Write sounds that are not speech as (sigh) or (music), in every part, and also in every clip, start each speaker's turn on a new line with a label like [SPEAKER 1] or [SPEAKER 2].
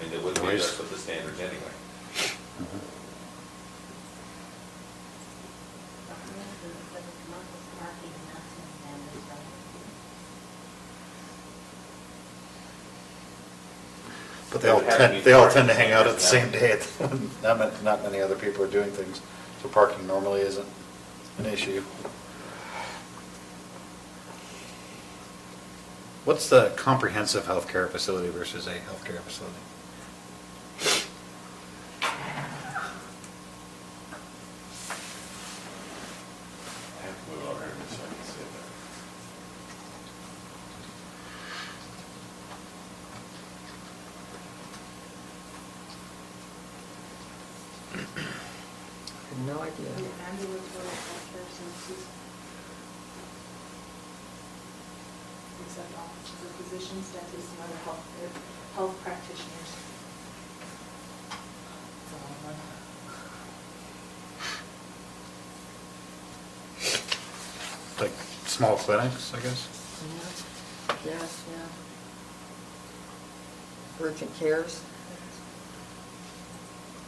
[SPEAKER 1] mean, they wouldn't be
[SPEAKER 2] Noise.
[SPEAKER 1] addressed with the standards anyway.
[SPEAKER 2] But they all
[SPEAKER 1] It has to be
[SPEAKER 2] tend, they all tend to
[SPEAKER 1] parking
[SPEAKER 2] hang out at the same
[SPEAKER 1] standards
[SPEAKER 2] day. (laughs) Not, ma- not many other people are doing things, so parking normally isn't an issue. What's the comprehensive healthcare facility versus a healthcare facility?
[SPEAKER 1] I have to move over here so I can see it.
[SPEAKER 3] I have no idea.
[SPEAKER 4] Except offices of physicians, dentists, and other health, health practitioners. It's a long one.
[SPEAKER 2] Like, small clinics, I guess?
[SPEAKER 3] Yeah, Yes, yeah. Urgent cares.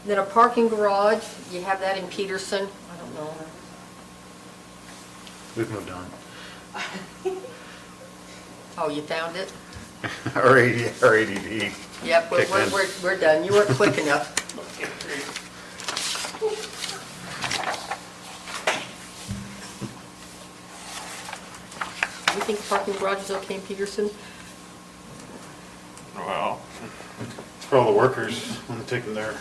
[SPEAKER 3] Then a parking garage, you have that in Peterson, I don't know.
[SPEAKER 2] We've moved on. (laughs)
[SPEAKER 3] Oh, you found it?
[SPEAKER 2] Our AD our ADD.
[SPEAKER 3] Yep, we're,
[SPEAKER 2] kicked
[SPEAKER 3] we're-
[SPEAKER 2] in.
[SPEAKER 3] we're, we're done, you weren't
[SPEAKER 2] (laughs)
[SPEAKER 3] quick enough. You think parking garage is okay in Peterson?
[SPEAKER 5] Well,
[SPEAKER 2] It's for all the workers, when they take them their,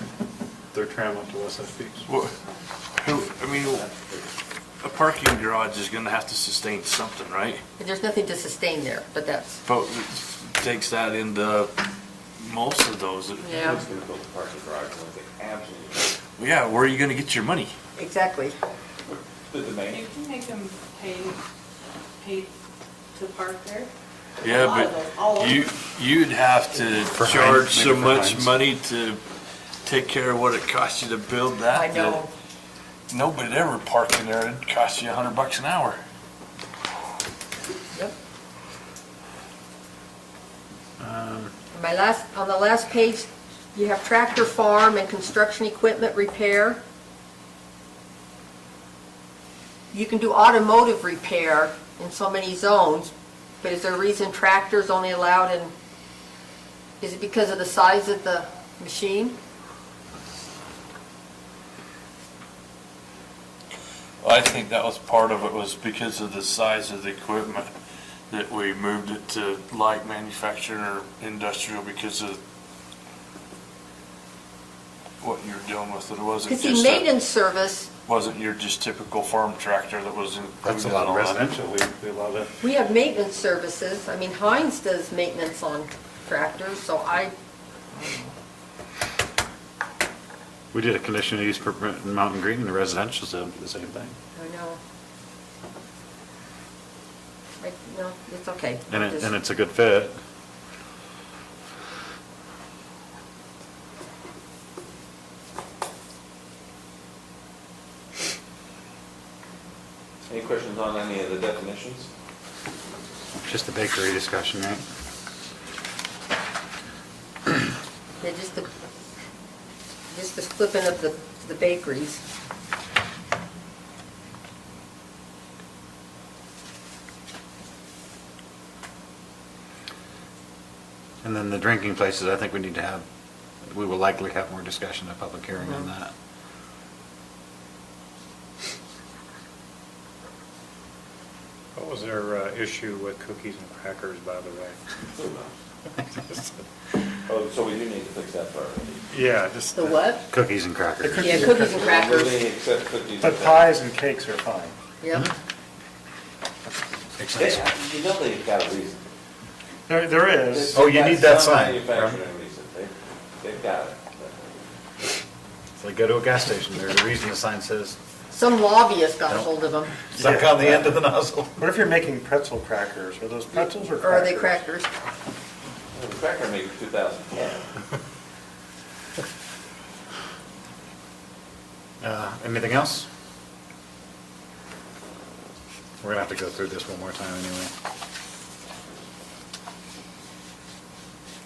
[SPEAKER 2] their tram up to West Side Peaks.
[SPEAKER 5] wha- who, I mean, a parking garage is gonna have to sustain something, right?
[SPEAKER 3] There's nothing to sustain there, but that's,
[SPEAKER 5] But takes that into most of those.
[SPEAKER 3] Yeah.
[SPEAKER 1] Who's gonna build a parking garage unless they absolutely,
[SPEAKER 5] Yeah, where are you gonna get your money?
[SPEAKER 3] exactly.
[SPEAKER 1] the domain?
[SPEAKER 4] You can make them pay, pay to park there. A
[SPEAKER 5] Yeah,
[SPEAKER 4] lot of those, all
[SPEAKER 5] but
[SPEAKER 4] of
[SPEAKER 5] you,
[SPEAKER 4] them.
[SPEAKER 5] you'd have to
[SPEAKER 2] For Heinz,
[SPEAKER 5] charge so
[SPEAKER 2] maybe for
[SPEAKER 5] much
[SPEAKER 2] Heinz.
[SPEAKER 5] money to take care of what it costs you to build that.
[SPEAKER 3] I know.
[SPEAKER 5] that Nobody'd ever park in there. It'd cost you a hundred bucks an hour.
[SPEAKER 3] Yep.
[SPEAKER 2] Um,
[SPEAKER 3] On My last, on the last page, you have tractor farm and construction equipment repair. You can do automotive repair in so many zones, but is there a reason tractors only allowed in, is it because of the size of the machine?
[SPEAKER 5] Well, I think that was part of it was because of the size of the equipment that we moved it to light manufacturing or industrial because of what you're dealing with. It wasn't
[SPEAKER 3] Because see,
[SPEAKER 5] just, a-
[SPEAKER 3] maintenance service,
[SPEAKER 5] wasn't your just typical farm tractor that was included.
[SPEAKER 2] That's a
[SPEAKER 5] in
[SPEAKER 2] lot of
[SPEAKER 5] all that.
[SPEAKER 2] residential, we, we love it.
[SPEAKER 3] we have maintenance services. I mean, Heinz does maintenance on tractors, so I,
[SPEAKER 2] We did a conditional use permit in Mountain Green, and the residential's did the same thing.
[SPEAKER 3] I know. I, no, it's okay.
[SPEAKER 2] And it,
[SPEAKER 3] Just-
[SPEAKER 2] and it's a good fit.
[SPEAKER 1] Any questions on any of the definitions?
[SPEAKER 2] Just a bakery discussion, right?
[SPEAKER 3] Yeah, just the, just the flipping of the, the bakeries.
[SPEAKER 2] And then the drinking places, I think we need to have, we will likely have more discussion at public hearing on
[SPEAKER 3] Mhm.
[SPEAKER 2] that.
[SPEAKER 6] What was their uh, issue with cookies and crackers, by the way?
[SPEAKER 1] Who knows? Oh, so we do need to fix that part.
[SPEAKER 6] Yeah, just.
[SPEAKER 3] The what?
[SPEAKER 2] Cookies and crackers.
[SPEAKER 3] Yeah, cookies and
[SPEAKER 1] Really
[SPEAKER 3] crackers.
[SPEAKER 1] accept cookies.
[SPEAKER 6] But pies and cakes are fine.
[SPEAKER 3] Yep.
[SPEAKER 2] Makes
[SPEAKER 1] They-
[SPEAKER 2] sense.
[SPEAKER 1] You know they've got a reason.
[SPEAKER 6] There, there is.
[SPEAKER 1] They've
[SPEAKER 2] Oh, you
[SPEAKER 1] got
[SPEAKER 2] need that
[SPEAKER 1] some
[SPEAKER 2] sign, right?
[SPEAKER 1] Manufacturing reason, they, they've got it.
[SPEAKER 2] It's like go to a gas station, there's a reason the sign says,
[SPEAKER 3] Some lobbyist got a
[SPEAKER 2] Nope.
[SPEAKER 3] hold of them.
[SPEAKER 2] suck on the end of the nozzle.
[SPEAKER 6] What if you're making pretzel crackers? Are those pretzels or
[SPEAKER 3] Or are
[SPEAKER 6] crackers?
[SPEAKER 3] they crackers?
[SPEAKER 1] Well, The cracker maker, two thousand ten.
[SPEAKER 2] Uh, Anything else? We're gonna have to go through this one more time anyway.